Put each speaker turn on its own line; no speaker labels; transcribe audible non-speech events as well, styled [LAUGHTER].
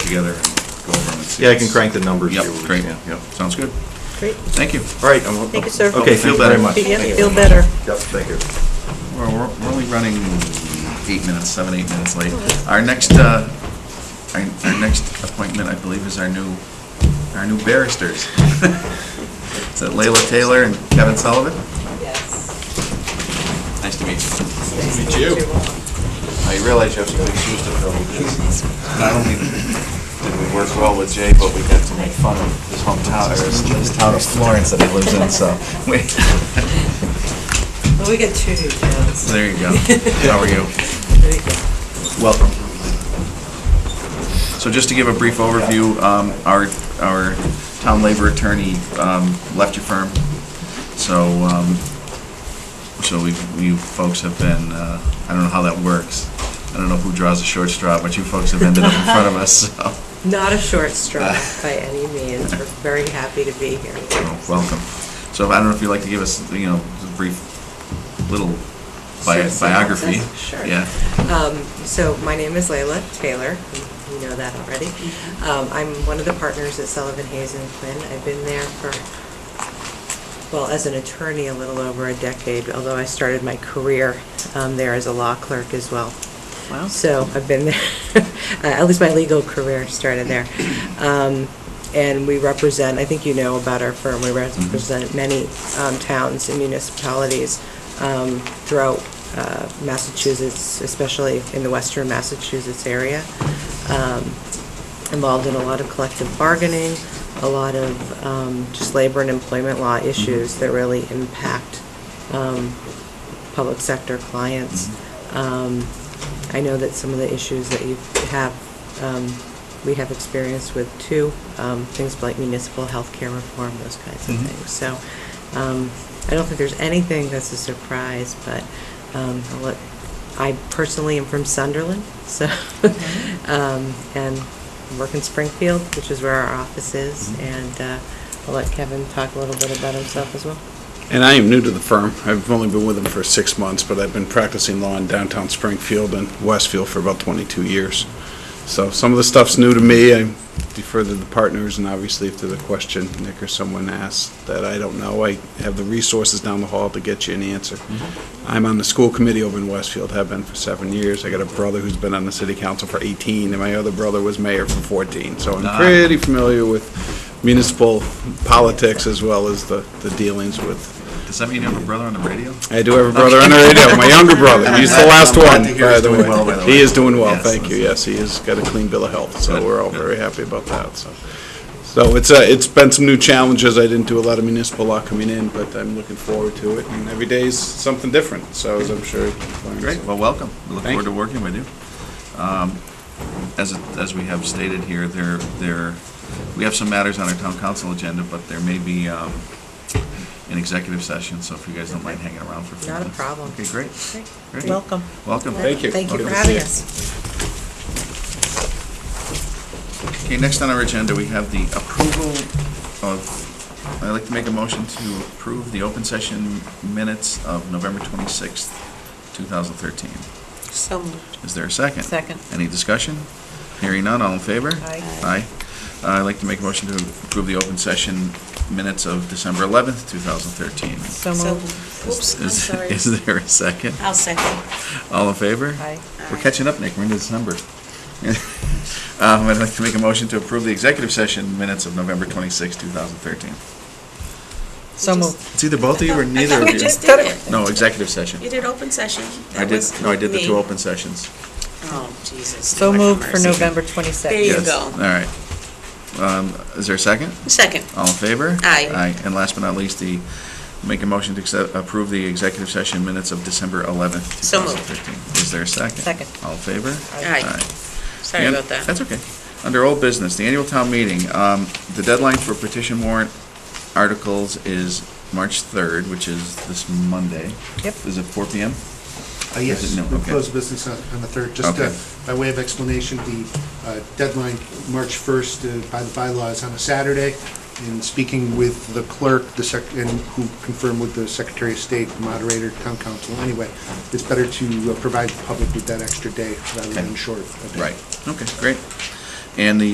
together and go over them and see.
Yeah, I can crank the numbers.
Yep,
here with
great,
you.
yep, sounds good.
Great.
Thank you.
All right. I'm-
Thank you, sir.
Okay,
Feel
feel better.
better.
much.
Yeah,
Thank you.
feel better.
Yep, thank you.
We're, we're we're only running eight minutes, seven, eight minutes late. Our next, uh, our, our next appointment, I believe, is our new, our new barristers. [LAUGHS] Is that Layla Taylor and Kevin Sullivan?
Yes.
Nice to meet you.
Meet you.
I realize Uh, you have some big shoes to fill because not only did we work well with Jay, but we got to make fun of his hometown, or his his town of Florence that he lives in, so.
Wait,
Well, we get two new towns.
there you go. How are you?
[LAUGHS] There you go.
Welcome. So just to give a brief overview, um, our, our town labor attorney um, left your firm, so, um, so we, you folks have been, uh, I don't know how that works. I don't know who draws the short straw, but you folks have ended up in front of us, so,
[LAUGHS] Not a
[LAUGHS]
short straw by any means. We're very happy to be here.
so welcome. So I don't know if you'd like to give us, you know, a brief little
Sure,
bi-
synopsis?
biography?
Sure.
Yeah.
Um, So my name is Layla Taylor, you know that already. Um, I'm one of the partners at Sullivan Hayes and Quinn. I've been there for, well, as an attorney, a little over a decade, although I started my career um, there as a law clerk as well.
Wow.
So I've been there, [LAUGHS] uh, at least my legal career started there. Um, And we represent, I think you know about our firm, we represent many um, towns and municipalities um, throughout uh, Massachusetts, especially in the western Massachusetts area. Um, Involved in a lot of collective bargaining, a lot of um, just labor and employment law issues that really impact um, public sector clients. Um, I know that some of the issues that you have, um, we have experience with too, um, things like municipal health care reform, those kinds of
Mhm.
things. So um, I don't think there's anything that's a surprise, but um, I'll let- I personally am from Sunderland, so, [LAUGHS] um, and work in Springfield, which is where our office is, and uh, I'll let Kevin talk a little bit about himself as well.
And I am new to the firm. I've only been with them for six months, but I've been practicing law in downtown Springfield and Westfield for about 22 years. So some of the stuff's new to me. I defer to the partners, and obviously if there's a question Nick or someone asks that I don't know, I have the resources down the hall to get you an answer. I'm on the school committee over in Westfield, have been for seven years. I got a brother who's been on the city council for 18, and my other brother was mayor for 14. So
Ah.
I'm pretty familiar with municipal politics as well as the the dealings with
Does that mean you have a brother on the radio?
I do have a brother on the radio, my younger
[LAUGHS]
brother, he's the last
I'm glad
one,
to hear
by
he's
the
doing well, by the
way.
way.
He is doing well,
Yes,
thank you,
that's-
yes, he has got a clean bill of health, so
Good,
we're all
good.
very happy about that, so. So it's, uh, it's been some new challenges, I didn't do a lot of municipal law coming in, but I'm looking forward to it, and every day is something different, so as I'm sure.
Great, well, welcome. We look
Thank
forward to working with you. Um, As, it- as we have stated here, there, there, we have some matters on our town council agenda, but there may be um, an executive session, so if you guys don't mind hanging around for a few
Not a
minutes.
problem.
Okay, great. Great.
Welcome.
Welcome.
Thank you.
Thank you
Good
for
to
having
see you.
us.
Okay, next on our agenda, we have the approval of, I'd like to make a motion to approve the open session minutes of November 26th, 2013.
So moved.
Is there a second?
Second.
Any discussion? Hearing none, all in favor?
Aye.
Aye. Uh, I'd like to make a motion to approve the open session minutes of December 11th, 2013.
So moved.
Is- is- Is there a second?
I'll second.
All in favor?
Aye.
We're catching up, Nick, we're into December. [LAUGHS] Um, I'd like to make a motion to approve the executive session minutes of November 26th, 2013.
So moved.
It's either both of
[LAUGHS]
you or neither of you.
We just did it.
No, executive session.
You did open session.
I
That
did,
was
no, I did the two
me.
open sessions.
Oh, Jesus.
So
Lord have
moved for
mercy.
November
There you
Yes.
26th.
go.
All right. Um, Is there a second?
Second.
All in favor?
Aye.
Aye. And last but not least, the, make a motion to accept, approve the executive session minutes of December 11th,
So moved.
2015. Is there a second?
Second.
All in favor?
Aye. Sorry
And-
about that.
That's okay. Under old business, the annual town meeting, um, the deadline for petition warrant articles is March 3rd, which is this Monday.
Yep.
Is it 4 PM?
Uh,
Is
Yes,
it? No,
we
okay.
close business on on the 3rd. Just
Okay.
uh, by way of explanation, the uh, deadline, March 1st, uh, by the bylaws, on a Saturday. And speaking with the clerk, the sec, and who confirmed with the Secretary of State, moderator, town council, anyway, it's better to uh, provide the public with that extra day rather
Okay.
than short. a day.
Right. Okay, great. And the